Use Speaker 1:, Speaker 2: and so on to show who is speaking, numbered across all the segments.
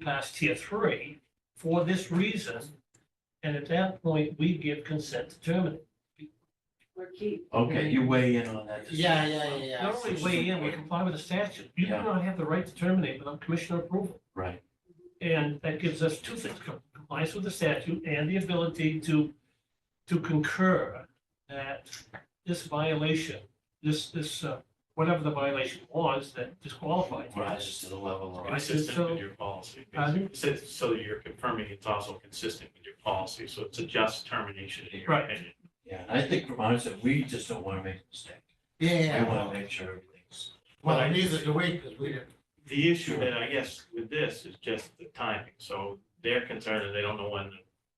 Speaker 1: past tier three for this reason. And at that point, we give consent to terminate.
Speaker 2: We're key.
Speaker 3: Okay, you weigh in on that. decision.
Speaker 4: Yeah, yeah, yeah, yeah.
Speaker 1: Not only weigh in, we comply with the statute. You do
Speaker 3: Yeah.
Speaker 1: not have the right to terminate without commissioner approval.
Speaker 3: Right,
Speaker 1: And that gives us two things, com- compliance with the statute and the ability to, to concur that this violation, this, this, uh, whatever the violation was that disqualified. you.
Speaker 3: rises to the level of.
Speaker 1: Right.
Speaker 5: Consistent
Speaker 1: so-
Speaker 5: with your policy.
Speaker 1: Pardon?
Speaker 5: It says- So you're confirming it's also consistent with your policy, so it's a just termination in your
Speaker 1: Right.
Speaker 5: opinion.
Speaker 3: Yeah, and I think from our side, we just don't want to make a mistake.
Speaker 4: Yeah,
Speaker 3: We
Speaker 4: yeah,
Speaker 3: want
Speaker 4: well,
Speaker 3: to make sure everything's.
Speaker 4: well, neither do we, because we didn't,
Speaker 5: The issue that I guess with this is just the timing, so their concern is they don't know when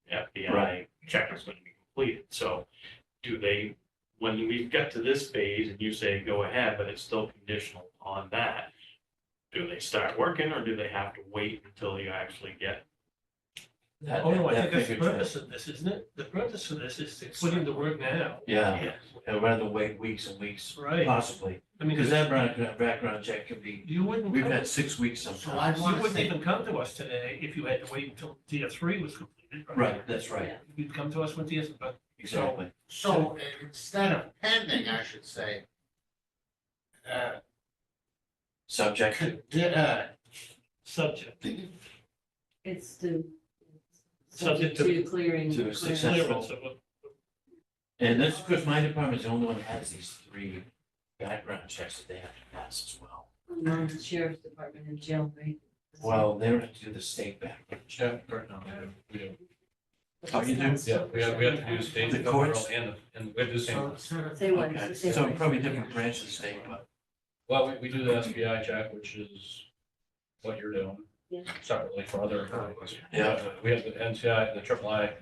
Speaker 5: the FBI
Speaker 3: Right.
Speaker 5: check is gonna be completed, so do they, when we've got to this phase and you say go ahead, but it's still conditional on that, do they start working or do they have to wait until you actually get?
Speaker 3: that-
Speaker 1: Oh, no, I
Speaker 3: that
Speaker 1: think that's the
Speaker 3: figure to-
Speaker 1: purpose of this, isn't it? The purpose of this is to put in the work now.
Speaker 3: Yeah, and rather than wait weeks and weeks,
Speaker 1: Right.
Speaker 3: possibly,
Speaker 1: I mean, because
Speaker 3: because Uh, that background, background check can be,
Speaker 1: you wouldn't,
Speaker 3: we've
Speaker 1: come-
Speaker 3: had six weeks
Speaker 4: so I
Speaker 3: sometimes.
Speaker 1: you
Speaker 4: want to
Speaker 1: wouldn't
Speaker 4: say,
Speaker 1: even come to us today if you had to wait until tier three was completed.
Speaker 3: Right, that's right,
Speaker 1: You'd come to us when tier, but
Speaker 3: exactly.
Speaker 4: so uh, instead of pending, I should say, uh,
Speaker 3: Subject to,
Speaker 4: condi- uh,
Speaker 1: subject,
Speaker 2: It's the.
Speaker 1: Subject
Speaker 2: Subject
Speaker 1: to-
Speaker 2: to clearing.
Speaker 3: to
Speaker 2: clearing-
Speaker 3: success. That's
Speaker 1: clearance of a
Speaker 3: and that's because my department's the only one that has these three background checks that they have to pass as well.
Speaker 2: Among the Sheriff's Department and jail, right?
Speaker 3: Well, they don't have to do the state background check.
Speaker 6: Yeah, right now, we do.
Speaker 3: Oh, you do?
Speaker 6: Yeah, we have, we have to do state,
Speaker 3: The
Speaker 6: the federal,
Speaker 3: courts?
Speaker 6: and, the- and we have to do
Speaker 4: so,
Speaker 6: same.
Speaker 4: so-
Speaker 2: Say what,
Speaker 3: Okay,
Speaker 2: say
Speaker 3: so
Speaker 2: what.
Speaker 3: probably different branch of the state, but
Speaker 6: Well, we, we do the SBI check, which is what you're doing
Speaker 2: Yeah.
Speaker 6: separately for other. Uh,
Speaker 3: yeah.
Speaker 6: We have the NCI, the triple I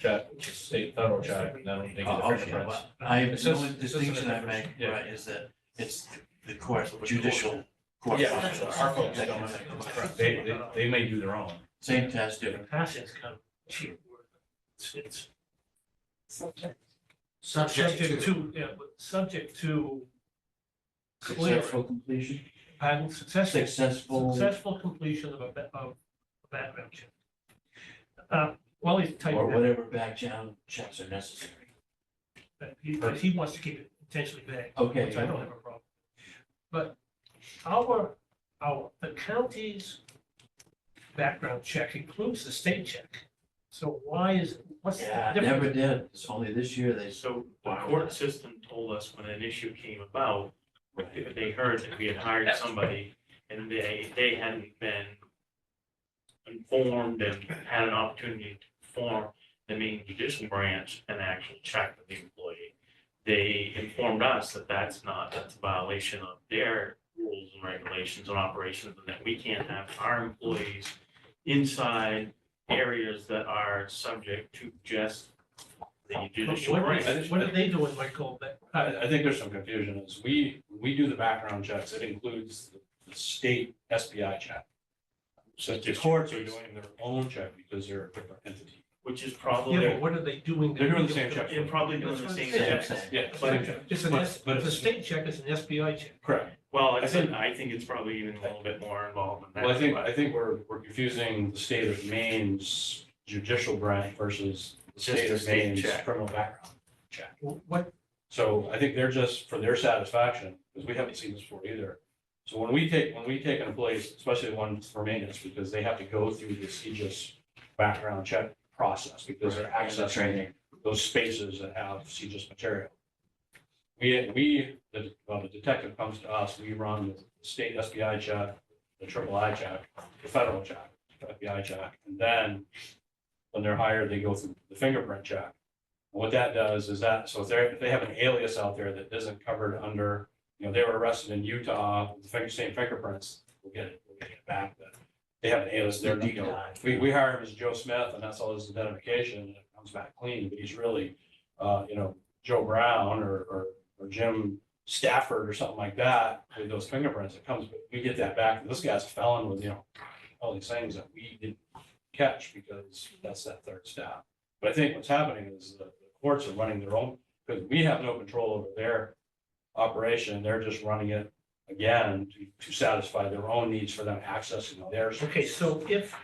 Speaker 6: check, which is state federal check, and then they get the
Speaker 3: Oh, okay,
Speaker 6: fingerprints.
Speaker 3: well, I,
Speaker 6: It's
Speaker 3: the
Speaker 6: just-
Speaker 3: only
Speaker 6: it's just an
Speaker 3: distinction I make,
Speaker 6: difference, yeah.
Speaker 3: right, is that it's the court, judicial court.
Speaker 6: Yeah,
Speaker 3: functions.
Speaker 6: our folks don't, they, they, they may do their own.
Speaker 3: Same test, different.
Speaker 1: passing is kind of cheap. word. It's- It's
Speaker 4: subject
Speaker 1: subject
Speaker 4: to,
Speaker 1: to, yeah, but subject to clear,
Speaker 3: Successful completion,
Speaker 1: pardon, successful
Speaker 3: successful,
Speaker 1: Successful completion of a, ba- of a background check. Uh, While he's
Speaker 3: or
Speaker 1: typing that,
Speaker 3: whatever background checks are necessary.
Speaker 1: that, he, but he wants to keep it intentionally vague, which I
Speaker 3: Okay,
Speaker 1: don't have a problem. But our, our, the county's background check includes the state check. So why is, what's the
Speaker 3: yeah,
Speaker 1: difference?
Speaker 3: never did, it's only this year they.
Speaker 5: So the
Speaker 3: Wow.
Speaker 5: court system told us when an issue came about,
Speaker 3: right.
Speaker 5: they heard that we had hired somebody and they, they hadn't been informed and had an opportunity to form the main judicial branch and actually check with the employee. They informed us that that's not, that's a violation of their rules and regulations and operations and that we can't have our employees inside areas that are subject to just the judicial
Speaker 1: What
Speaker 5: branch.
Speaker 1: is- What are they doing, Michael, that, uh,
Speaker 6: I, I think there's some confusion, is we, we do the background checks, it includes the- the state SBI check. So the courts are doing their own check because they're a different entity.
Speaker 5: Which is probably,
Speaker 1: yeah, but
Speaker 5: they're
Speaker 1: what are they doing?
Speaker 6: They're doing the same check.
Speaker 5: probably doing the
Speaker 1: That's
Speaker 5: same
Speaker 1: what I'm
Speaker 3: Yeah,
Speaker 5: thing.
Speaker 1: saying.
Speaker 3: I'm saying.
Speaker 6: Yeah, same check.
Speaker 1: It's an
Speaker 6: But-
Speaker 1: S,
Speaker 6: but
Speaker 1: the
Speaker 6: it's-
Speaker 1: state check is an SBI check.
Speaker 6: Correct.
Speaker 5: Well, I
Speaker 6: I think-
Speaker 5: think, I think it's probably even a little bit more involved than that.
Speaker 6: Well, I think, I think we're, we're confusing the state of Maine's judicial branch versus the
Speaker 5: Just
Speaker 6: state
Speaker 5: the
Speaker 6: of
Speaker 5: state
Speaker 6: Maine's
Speaker 5: check.
Speaker 6: criminal background.
Speaker 1: What,
Speaker 6: So I think they're just for their satisfaction, because we haven't seen this before either. So when we take, when we take an employee, especially the ones for maintenance, because they have to go through this CJIS background check process because they're accessing
Speaker 3: Training,
Speaker 6: those spaces that have CJIS material. We, we, the, well, the detective comes to us, we run the state SBI check, the triple I check, the federal check, the FBI check, and then when they're hired, they go through the fingerprint check. What that does is that, so if they're, if they have an alias out there that isn't covered under, you know, they were arrested in Utah, with the finger- same fingerprints, we'll get it, we'll get it back, but they have an alias,
Speaker 3: their
Speaker 6: they're,
Speaker 3: deep
Speaker 6: you know,
Speaker 3: dive.
Speaker 6: we, we hire him as Joe Smith and that's all his identification and it comes back clean, but he's really, uh, you know, Joe Brown or, or, or Jim Stafford or something like that with those fingerprints. It comes, we get that back. This guy's a felon with, you know, all these things that we didn't catch because that's that third step. But I think what's happening is the the courts are running their own, because we have no control over their operation. They're just running it again, to- to satisfy their own needs for them accessing theirs.
Speaker 1: Okay, so if